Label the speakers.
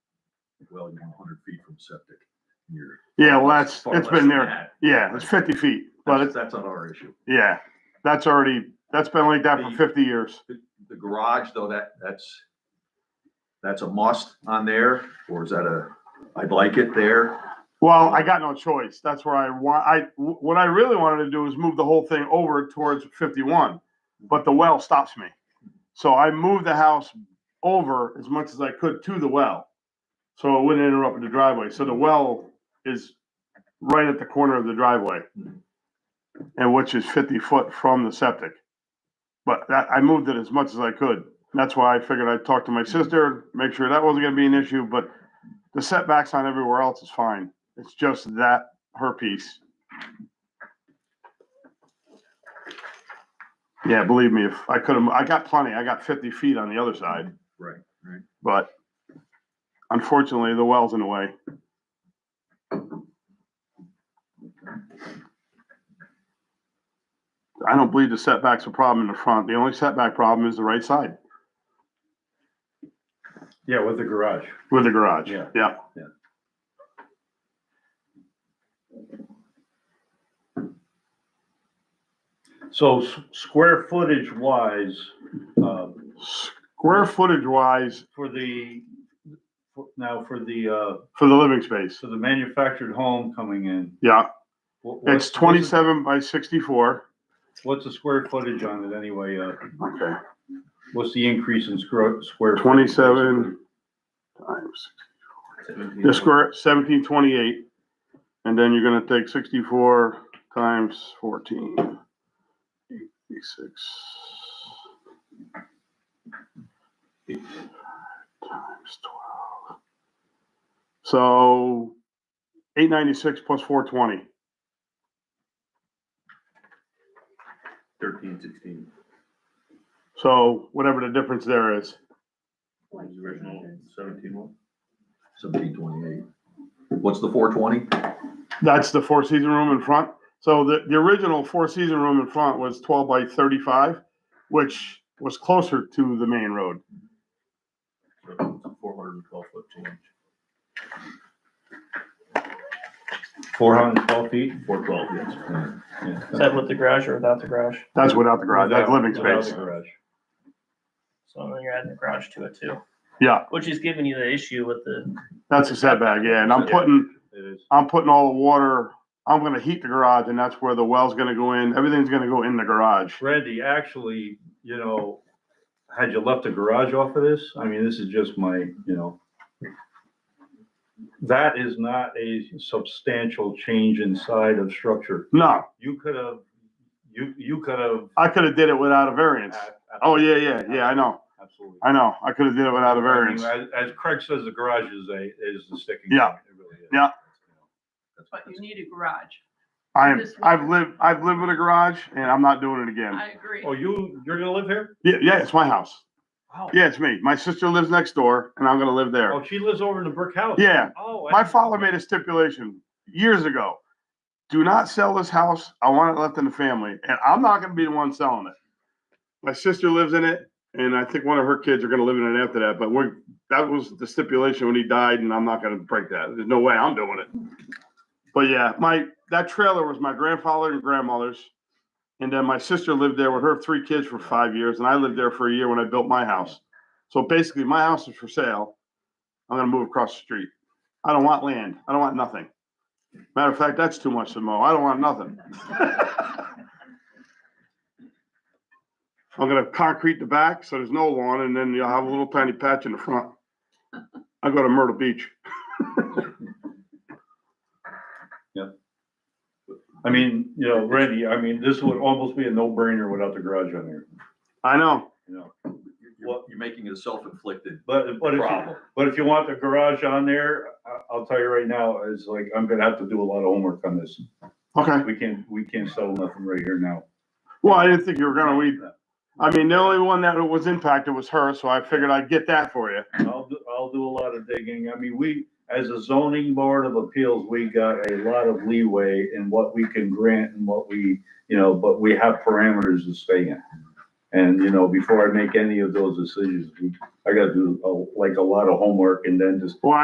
Speaker 1: well, you're hundred feet from septic. and You're.
Speaker 2: Yeah, well, that's,
Speaker 1: far
Speaker 2: it's
Speaker 1: less
Speaker 2: been
Speaker 1: than
Speaker 2: there.
Speaker 1: that.
Speaker 2: Yeah, it's fifty feet, but
Speaker 1: That's,
Speaker 2: it's,
Speaker 1: that's not our issue.
Speaker 2: yeah, that's already, that's been like that for fifty years.
Speaker 1: The- The garage, though, that, that's, that's a must on there, or is that a, I'd like it there?
Speaker 2: Well, I got no choice. That's where I want, I, what I really wanted to do is move the whole thing over towards fifty-one, but the well stops me. So I moved the house over as much as I could to the well. So it wouldn't interrupt the driveway. So the well is right at the corner of the driveway. And which is fifty foot from the septic. But that, I moved it as much as I could. That's why I figured I'd talk to my sister, make sure that wasn't gonna be an issue, but the setbacks on everywhere else is fine. It's just that her piece. Yeah, believe me, if I could have, I got plenty. I got fifty feet on the other side,
Speaker 1: Right, right.
Speaker 2: but unfortunately, the well's in the way. I don't believe the setback's a problem in the front. The only setback problem is the right side
Speaker 3: Yeah, with the garage.
Speaker 2: with the garage.
Speaker 3: Yeah.
Speaker 2: Yeah.
Speaker 1: Yeah.
Speaker 3: So s- square footage wise, uh,
Speaker 2: Square footage wise
Speaker 3: for the, for- now for the, uh,
Speaker 2: for the living space.
Speaker 3: so the manufactured home coming in.
Speaker 2: Yeah.
Speaker 3: wha- what's-
Speaker 2: It's twenty-seven by sixty-four.
Speaker 3: What's the square footage on it anyway? Uh,
Speaker 2: Okay.
Speaker 3: what's the increase in square, square? footage?
Speaker 2: Twenty-seven times, the square, seventeen twenty-eight. And then you're gonna take sixty-four times fourteen. Eighty-six. Times twelve. So, eight ninety-six plus four twenty.
Speaker 1: Thirteen, sixteen.
Speaker 2: So whatever the difference there is.
Speaker 1: Original seventeen one? Seventeen twenty-eight. What's the four twenty?
Speaker 2: That's the four season room in front. So the, the original four season room in front was twelve by thirty-five, which was closer to the main road.
Speaker 1: Four hundred and twelve foot change.
Speaker 3: Four hundred and twelve feet?
Speaker 1: Four twelve, yes.
Speaker 3: Yeah.
Speaker 4: Is that with the garage or without the garage?
Speaker 2: That's without the garage, that's living
Speaker 3: Without
Speaker 2: space.
Speaker 3: the garage.
Speaker 4: So then you're adding the garage to it too.
Speaker 2: Yeah.
Speaker 4: Which is giving you the issue with the,
Speaker 2: That's a setback, yeah. And I'm
Speaker 3: Yeah.
Speaker 2: putting,
Speaker 3: It is.
Speaker 2: I'm putting all the water, I'm gonna heat the garage and that's where the well's gonna go in. Everything's gonna go in the garage.
Speaker 3: Randy, actually, you know, had you left the garage off of this, I mean, this is just my, you know. That is not a substantial change inside of structure.
Speaker 2: No,
Speaker 3: You could have, you, you could have.
Speaker 2: I could have did it without a variance. Oh, yeah, yeah, yeah, I know,
Speaker 3: Absolutely.
Speaker 2: I know. I could have did it without a variance.
Speaker 3: I mean, As as Craig says, the garage is a, is the sticking. point.
Speaker 2: Yeah.
Speaker 3: It really is.
Speaker 2: Yeah.
Speaker 5: But you need a garage.
Speaker 2: I am, I've lived, I've lived with a garage and I'm not doing it again.
Speaker 5: I agree.
Speaker 3: Oh, you, you're gonna live here?
Speaker 2: Yeah, yeah, it's my house.
Speaker 3: Wow.
Speaker 2: Yeah, it's me. My sister lives next door, and I'm gonna live there.
Speaker 3: Oh, she lives over in the brick house?
Speaker 2: Yeah,
Speaker 3: Oh. I-
Speaker 2: my father made a stipulation years ago. Do not sell this house. I want it left in the family, and I'm not gonna be the one selling it. My sister lives in it, and I think one of her kids are gonna live in it after that, but we're, that was the stipulation when he died, and I'm not gonna break that. There's no way I'm doing it. But yeah, my, that trailer was my grandfather and grandmother's. And then my sister lived there with her three kids for five years, and I lived there for a year when I built my house. So basically, my house is for sale. I'm gonna move across the street. I don't want land. I don't want nothing. Matter of fact, that's too much to mow. I don't want nothing. I'm gonna concrete the back, so there's no lawn, and then you'll have a little tiny patch in the front. I go to Myrtle Beach.
Speaker 3: I mean, you know, Randy, I mean, this would almost be a no-brainer without the garage on here,
Speaker 2: I know.
Speaker 3: you know?
Speaker 1: What, you're making it a self-inflicted
Speaker 3: But, but if, you-
Speaker 1: problem.
Speaker 3: but if you want the garage on there, I, I'll tell you right now, it's like, I'm gonna have to do a lot of homework on this.
Speaker 2: Okay.
Speaker 3: We can't, we can't settle nothing right here now.
Speaker 2: Well, I didn't think you were gonna weed. I mean, the only one that was impacted was her, so I figured I'd get that for you.
Speaker 3: I'll, do- I'll do a lot of digging. I mean, we, as a zoning board of appeals, we got a lot of leeway in what we can grant and what we, you know, but we have parameters to stay in. And, you know, before I make any of those decisions, we- I gotta do uh, like a lot of homework and then just
Speaker 2: Well,